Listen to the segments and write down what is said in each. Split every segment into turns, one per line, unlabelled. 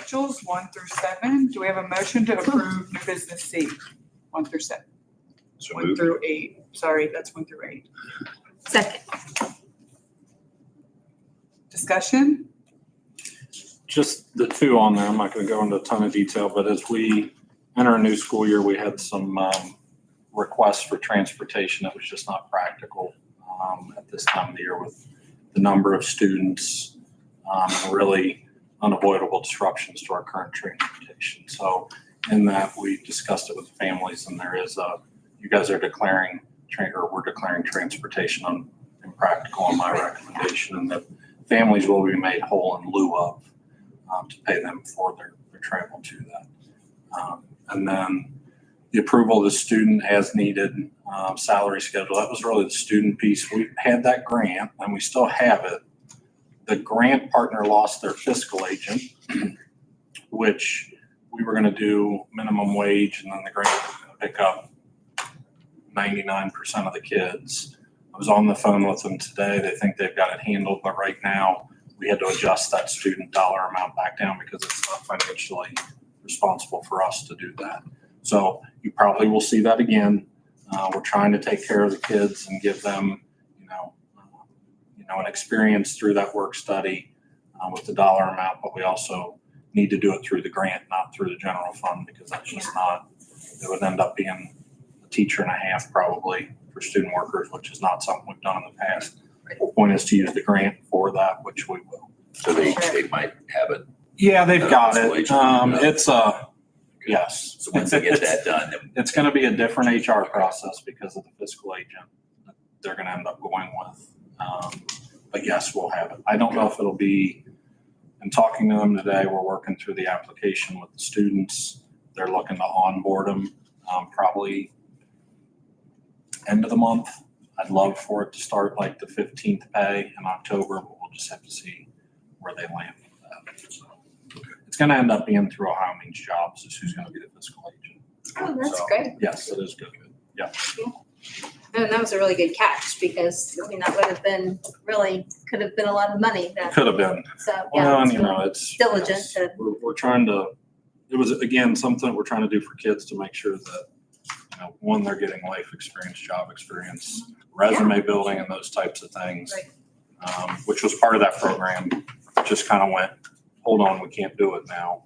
financials, one through seven. Do we have a motion to approve new business C? One through seven,
So
one
moved.
through eight. Sorry, that's one through eight.
Second.
Discussion?
Just the two on there, I'm not going to go into a ton of detail, but as we enter a new school year, we had some um, requests for transportation that was just not practical um, at this time of the year with the number of students, um, and really unavoidable disruptions to our current transportation. So in that, we discussed it with families and there is a, you guys are declaring, tran- or we're declaring transportation un- impractical on my recommendation and that families will be made whole in lieu of um, to pay them for their, their travel to that. Um, and then the approval of the student as needed um, salary schedule, that was really the student piece. We had that grant and we still have it. The grant partner lost their fiscal agent, which we were going to do minimum wage and then the grant was going to pick up 99% of the kids. I was on the phone with them today. They think they've got it handled, but right now we had to adjust that student dollar amount back down because it's not financially responsible for us to do that. So you probably will see that again. Uh, we're trying to take care of the kids and give them, you know, uh, you know, an experience through that work study uh, with the dollar amount, but we also need to do it through the grant, not through the general fund, because that's just not, it would end up being a teacher and a half probably for student workers, which is not something we've done in the past. The Point is to use the grant for that, which we will. Uh,
So they, they might have it.
Yeah, they've got it.
Installation.
Um, it's a, yes.
So once they get
It's-
that done, then
It's gonna be a different HR process because of the fiscal agent that they're gonna end up going with. Um, but yes, we'll have it. I don't know if it'll be, in talking to them today, we're working through the application with the students. They're looking to onboard them, um, probably end of the month. I'd love for it to start like the fifteenth pay in October, but we'll just have to see where they land with that. So, It's gonna end up being through Ohio Means Jobs is who's gonna be the fiscal agent.
Oh, that's
So-
great.
Yes, it is good.
And that was a really good catch because, I mean, that would have been really, could have been a lot of money that,
Could have been.
so, yeah.
Well, uh, and
it's
you know, it's.
Diligent
yes.
to-
We're, we're trying to, it was, again, something that we're trying to do for kids to make sure that, you know, one, they're getting life experience, job experience, resume building and those types of things.
Right.
Um, which was part of that program, just kind of went, hold on, we can't do it now.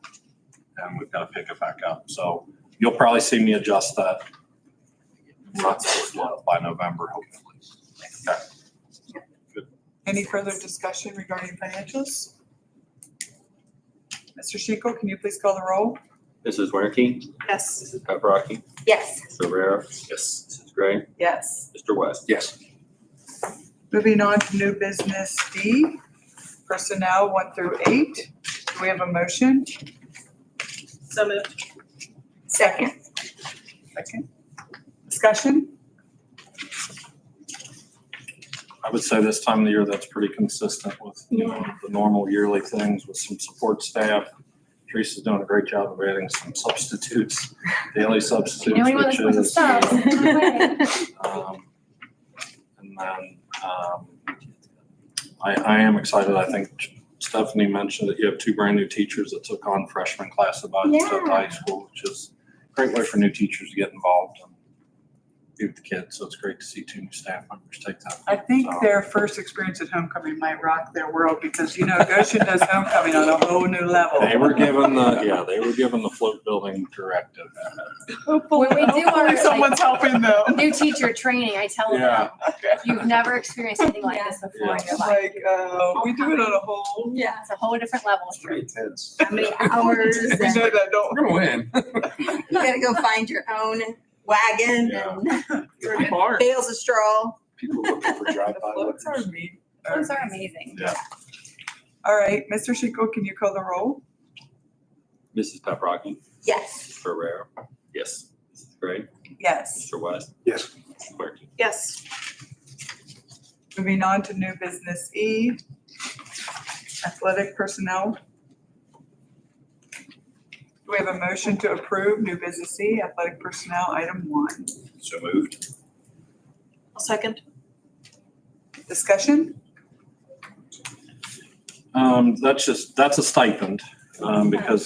And we've got to pick it back up. So you'll probably see me adjust that. Not so, by November, hopefully. Okay.
Any further discussion regarding financials? Mr. Shiko, can you please call the roll?
Mrs. Werke,
Yes.
Mrs. Paprocki,
Yes.
Mr. Rivera,
yes.
Mrs. Gray,
Yes.
Mr. West.
Yes.
Moving on to new business D, personnel one through eight. Do we have a motion?
So moved.
Second.
Second. Discussion?
I would say this time of the year, that's pretty consistent with, you know, the normal yearly things with some support staff. Teresa's doing a great job of adding some substitutes, daily substitutes, which is. um, And then, um, I, I am excited. I think Stephanie mentioned that you have two brand-new teachers that took on freshman class about to
Yeah.
high school, which is a great way for new teachers to get involved and be with the kids. So it's great to see two new staff members take that.
I think
So-
their first experience at homecoming might rock their world because, you know, Goshen does homecoming on a whole new level.
They were given the, yeah, they were given the float building directive. uh,
Hopefully,
When we do
hopefully
our, like-
someone's helping them.
new teacher training, I tell
Yeah.
them, you've never experienced anything like this before in your
It's
life.
like, uh, we do it on a whole.
Yeah.
It's a whole different level.
intense.
How many hours
We know
and you
that, don't we?
gonna win.
gotta go find your own wagon and bales of straw.
People looking for
The floats are mean.
Those are amazing.
Yeah.
All right, Mr. Shiko, can you call the roll?
Mrs. Paprocki,
Yes.
Mr. Rivera, yes. Mrs. Gray,
Yes.
Mr. West.
Yes.
Mrs. Werke.
Yes.
Moving on to new business E, athletic personnel. Do we have a motion to approve new business E, athletic personnel, item one?
So moved.
I'll second.
Discussion?
Um, that's just, that's a stipend, um, because